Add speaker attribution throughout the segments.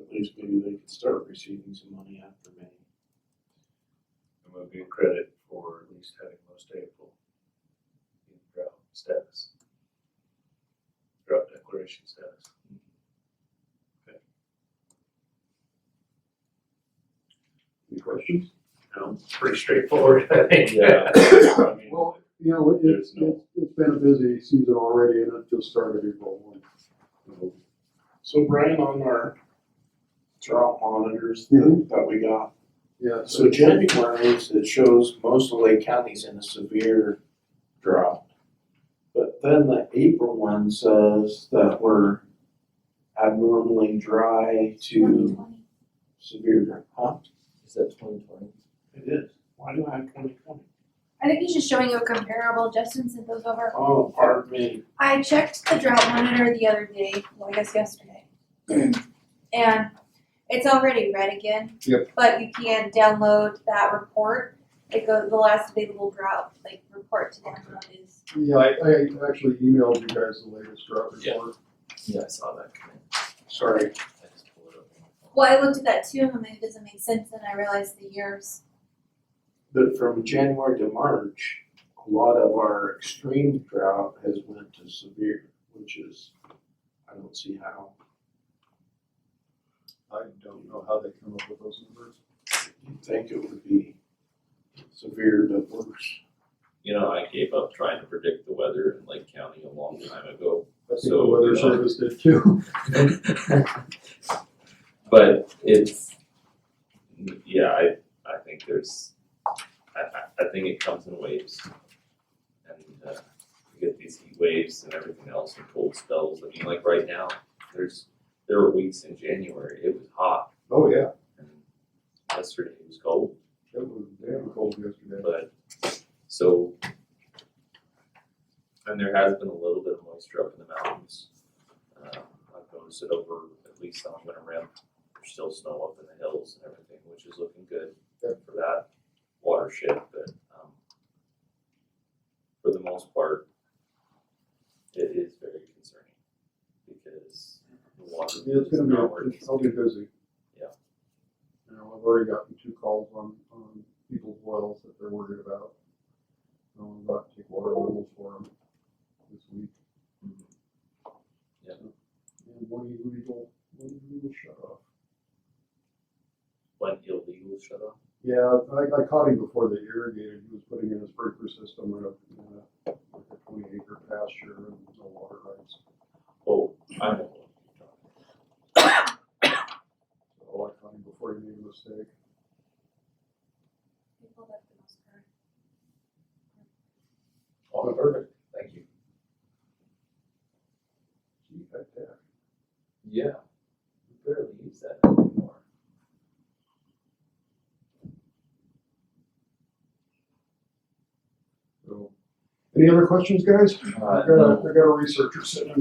Speaker 1: at least maybe they could start receiving some money after May.
Speaker 2: And we'll get credit for at least having most April in drought status. Drought declaration status. Okay.
Speaker 1: Any questions?
Speaker 2: No, pretty straightforward, I think.
Speaker 1: Yeah.
Speaker 2: I mean,
Speaker 3: Well, You know, it,
Speaker 2: There's
Speaker 3: it's,
Speaker 2: no-
Speaker 3: it's been a busy season already and it just started April one.
Speaker 1: So Brian, on our drought monitors that
Speaker 3: Mhm.
Speaker 1: that we got,
Speaker 3: Yeah, so
Speaker 1: so January's, it shows most of Lake County's in a severe drought. But then the April one says that we're abnormally dry to severe drought. Huh?
Speaker 4: Is that twenty twenty?
Speaker 1: It is. Why do I have twenty twenty?
Speaker 5: I think he's just showing you a comparable. Justin sent those over.
Speaker 1: Oh, pardon me.
Speaker 5: I checked the drought monitor the other day, well, I guess yesterday. And it's already red again.
Speaker 3: Yep.
Speaker 5: But you can download that report. It goes, the last available drought, like, report to download is.
Speaker 3: Yeah, I, I actually emailed you guys the latest drought
Speaker 4: Yeah.
Speaker 3: report.
Speaker 4: Yeah, I saw that come in.
Speaker 1: Sorry.
Speaker 4: I just pulled it up on my phone.
Speaker 5: Well, I looked at that too, and it doesn't make sense, and I realized the years.
Speaker 1: But from January to March, a lot of our extreme drought has went to severe, which is, I don't see how.
Speaker 3: I don't know how they come up with those numbers.
Speaker 1: You'd think it would be severe but worse.
Speaker 6: You know, I gave up trying to predict the weather in Lake County a long time ago.
Speaker 3: I think the
Speaker 6: So,
Speaker 3: weather
Speaker 6: you know-
Speaker 3: service did too.
Speaker 6: But it's, yeah, I, I think there's, I, I, I think it comes in waves. And, uh, you get these heat waves and everything else and cold spells. I mean, like right now, there's, there were weeks in January, it was hot.
Speaker 3: Oh, yeah,
Speaker 6: And yesterday it was cold.
Speaker 3: it was damn cold yesterday.
Speaker 6: but, so. And there has been a little bit of moisture up in the mountains. Um, I've noticed it over, at least on Winter Rim, there's still snow up in the hills and everything, which is looking good
Speaker 3: Yep.
Speaker 6: for that watershed, but, um, for the most part, it is very concerning because the water
Speaker 3: Yeah, it's
Speaker 6: is
Speaker 3: gonna be,
Speaker 6: not where it needs
Speaker 3: it's
Speaker 6: to
Speaker 3: gonna
Speaker 6: be.
Speaker 3: be busy.
Speaker 6: Yeah.
Speaker 3: You know, I've already gotten two calls on, on people's wells that they're worried about. Um, about to take water levels for them this week.
Speaker 6: Mhm. Yeah.
Speaker 3: And one illegal, one illegal shut off.
Speaker 6: When illegal shut off,
Speaker 3: Yeah, I, I caught him before they irrigated, he was putting in a sprinkler system in a, in a, like a twenty acre pasture and no water rights.
Speaker 6: oh, I know. what you're talking about.
Speaker 3: So I caught him before he made a mistake.
Speaker 6: Oh, perfect, thank you.
Speaker 3: Gee, heck, yeah.
Speaker 6: Yeah, we barely use that anymore.
Speaker 3: So, any other questions, guys?
Speaker 6: Uh,
Speaker 3: I got a,
Speaker 6: no.
Speaker 3: I got a researcher sitting.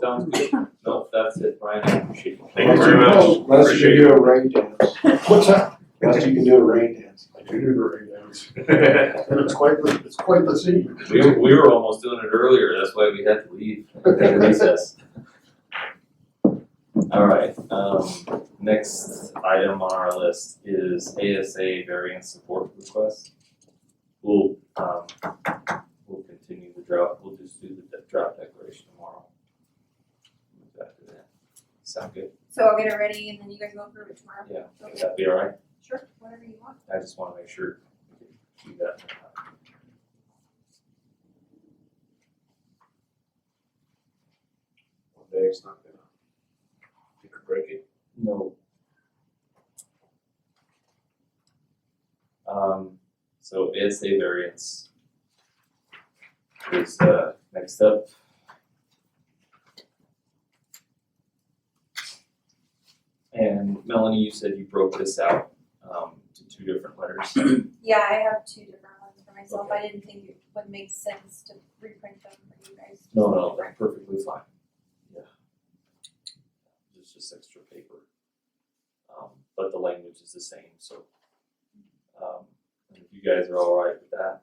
Speaker 6: Sounds good. No, that's it, Brian, I appreciate you.
Speaker 2: Thank you very much.
Speaker 1: Unless you can
Speaker 2: Appreciate
Speaker 1: do a rain dance.
Speaker 3: What's that?
Speaker 1: Unless you can do a rain dance.
Speaker 3: I do do the rain dance.
Speaker 6: it.
Speaker 3: And it's quite, the- it's quite the scene.
Speaker 6: We, were- we were almost doing it earlier, that's why we had to leave, take a recess. All right, um, next item on our list is ASA variance support request. We'll, um, we'll continue the drought, we'll just do the de- drought declaration tomorrow. Move back to that. Sound good?
Speaker 5: So I'll get it ready, and then you guys go through it tomorrow.
Speaker 6: Yeah, would
Speaker 5: Okay,
Speaker 6: that be all right?
Speaker 5: sure, whatever you want.
Speaker 6: I just wanna make sure we can do that.
Speaker 2: One day it's not gonna, you can break it.
Speaker 6: No. Um, so ASA variance is uh next up. And Melanie, you said you broke this out um to two different letters.
Speaker 5: Yeah, I have two different ones for myself. I didn't think it would make sense to reprint them for you guys.
Speaker 6: No, no, that's perfectly fine. Yeah. It's just extra paper. Um, but the language is the same, so. Um, and if you guys are all right with that,